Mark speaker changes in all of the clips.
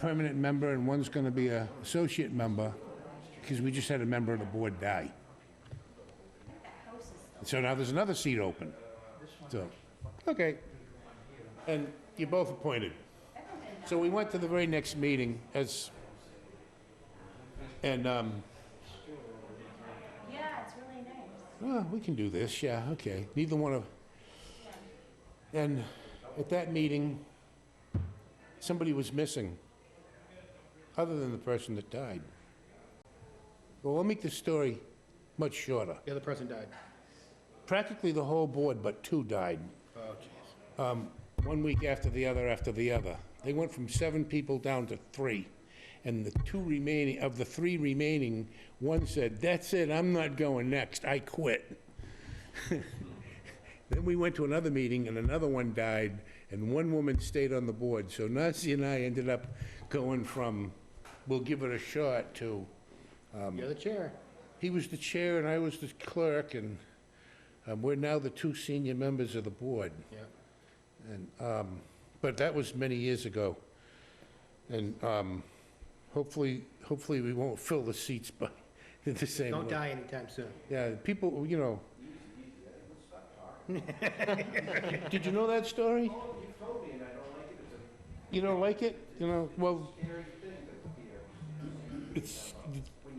Speaker 1: permanent member and one's going to be a associate member, because we just had a member of the board die. So now there's another seat open. So, okay. And you're both appointed. So we went to the very next meeting as, and, um,
Speaker 2: Yeah, it's really nice.
Speaker 1: well, we can do this, yeah, okay. Neither one of, and at that meeting, somebody was missing, other than the person that died. Well, I'll make the story much shorter.
Speaker 3: The other person died.
Speaker 1: Practically the whole board but two died,
Speaker 3: Oh, jeez.
Speaker 1: um, one week after the other after the other. They went from seven people down to three. And the two remaining, of the three remaining, one said, "That's it, I'm not going next, I quit." Then we went to another meeting, and another one died, and one woman stayed on the board. So Nancy and I ended up going from, "We'll give it a shot," to,
Speaker 3: You're the chair.
Speaker 1: he was the chair and I was the clerk, and um, we're now the two senior members of the board.
Speaker 3: Yeah.
Speaker 1: And, um, but that was many years ago. And, um, hopefully, hopefully we won't fill the seats by the same way.
Speaker 3: Don't die anytime soon.
Speaker 1: Yeah, people, you know. Did you know that story? you don't like it? You know, well. It's,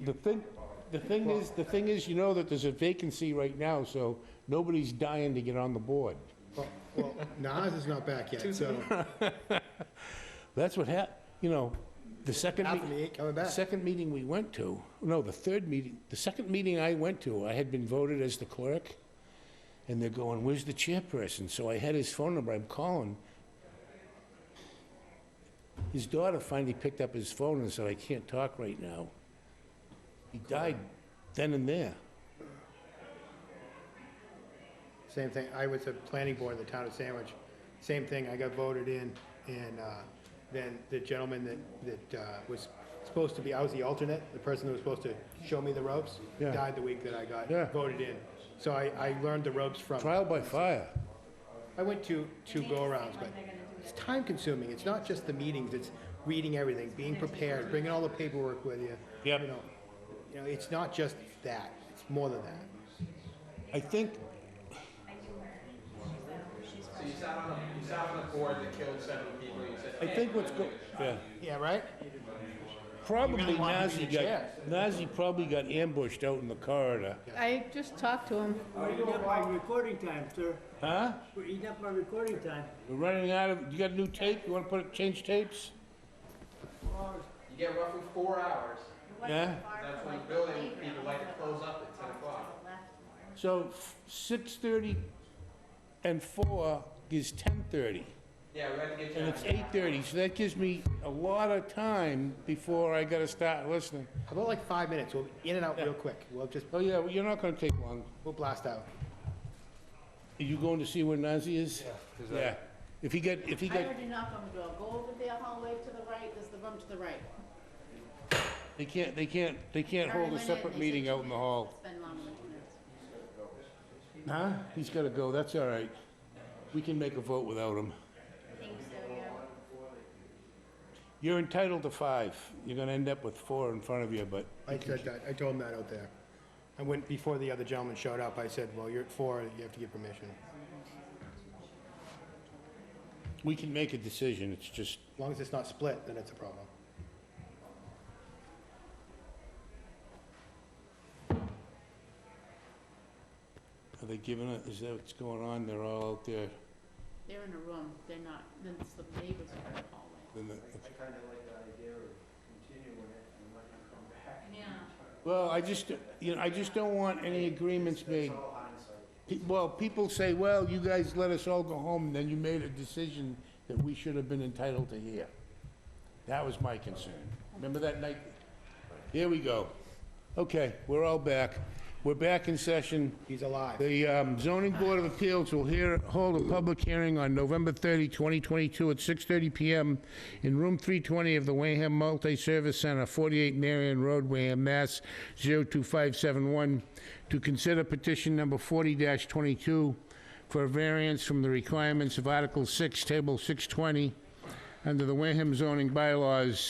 Speaker 1: the thing, the thing is, the thing is, you know that there's a vacancy right now, so nobody's dying to get on the board.
Speaker 3: Well, well, Nas is not back yet, so
Speaker 1: That's what hap, you know, the second. me-
Speaker 3: Anthony ain't coming back.
Speaker 1: Second meeting we went to, no, the third meeting, the second meeting I went to, I had been voted as the clerk, and they're going, where's the chairperson? So I had his phone number, I'm calling. His daughter finally picked up his phone and said, I can't talk right now. He died then and there.
Speaker 3: Same thing, I was a planning board in the town of Sandwich. Same thing, I got voted in, and uh, then the gentleman that, that uh, was supposed to be, I was the alternate, the person that was supposed to show me the ropes,
Speaker 1: Yeah.
Speaker 3: died the week that I
Speaker 1: Yeah.
Speaker 3: got voted in. So I, I learned the ropes from,
Speaker 1: Trial by fire.
Speaker 3: I went to two go-arounds, but it's time-consuming. It's not just the meetings, it's reading everything, being prepared, bringing all the paperwork with you.
Speaker 1: Yep.
Speaker 3: You know, you know, it's not just that, it's more than that.
Speaker 1: I think,
Speaker 4: So you sat on a, you sat on a board that killed seven people, and you said,
Speaker 1: I think what's go, yeah.
Speaker 3: Yeah, right?
Speaker 1: Probably
Speaker 3: wanted to be
Speaker 1: Nazi
Speaker 3: the
Speaker 1: got,
Speaker 3: chair.
Speaker 1: Nazi probably got ambushed out in the corridor.
Speaker 2: I just talked to him.
Speaker 5: We're eating up my recording time, sir.
Speaker 1: Huh?
Speaker 5: We're eating up my recording time.
Speaker 1: We're running out of, you got a new tape? You wanna put, change tapes?
Speaker 4: you get roughly four hours,
Speaker 1: Yeah?
Speaker 4: that's when building people like to close up at ten o'clock.
Speaker 1: So six thirty and four is ten thirty,
Speaker 4: Yeah, we had to get you.
Speaker 1: and
Speaker 4: out.
Speaker 1: it's eight thirty, so that gives me a lot of time before I gotta start listening.
Speaker 3: How about like five minutes? We'll in and out real quick. We'll just,
Speaker 1: Oh, yeah, well, you're not gonna take long.
Speaker 3: we'll blast out.
Speaker 1: Are you going to see where Nazi is? Yeah. If he got, if he
Speaker 6: I
Speaker 1: got,
Speaker 6: already knocked on the door. Go over there hallway to the right, there's the room to the right.
Speaker 1: they can't, they can't, they can't
Speaker 6: I
Speaker 1: hold
Speaker 6: already
Speaker 1: a
Speaker 6: went in,
Speaker 1: separate
Speaker 6: they
Speaker 1: meeting
Speaker 6: said
Speaker 1: out in the hall.
Speaker 6: It's been longer than two minutes.
Speaker 1: Huh? He's gotta go, that's all right. We can make a vote without him.
Speaker 6: I think so, yeah.
Speaker 1: You're entitled to five. You're gonna end up with four in front of you, but
Speaker 3: I said that, I told him that out there. I went, before the other gentleman showed up, I said, well, you're at four, you have to get permission.
Speaker 1: we can make a decision. It's just,
Speaker 3: As long as it's not split, then it's a problem.
Speaker 1: are they giving it, is that what's going on? They're all out there.
Speaker 6: They're in a room, they're not, then it's the neighbors are in the hallway.
Speaker 1: Then the-
Speaker 7: I kind of like the idea of continuing it and letting it come back.
Speaker 6: Yeah.
Speaker 1: Well, I just, you know, I just don't want any agreements made. Pe- Well, people say, well, you guys let us all go home, and then you made a decision that we should have been entitled to hear. That was my concern. Remember that night? Here we go. Okay, we're all back. We're back in session.
Speaker 3: He's alive.
Speaker 1: The um, zoning board of appeals will hear, hold a public hearing on November 30, 2022 at 6:30 PM in room 320 of the Wareham Multi-Service Center, 48 Marion Road, Wareham, Mass. 02571, to consider petition number 40-22 for a variance from the requirements of Article 6, Table 620, under the Wareham zoning bylaws,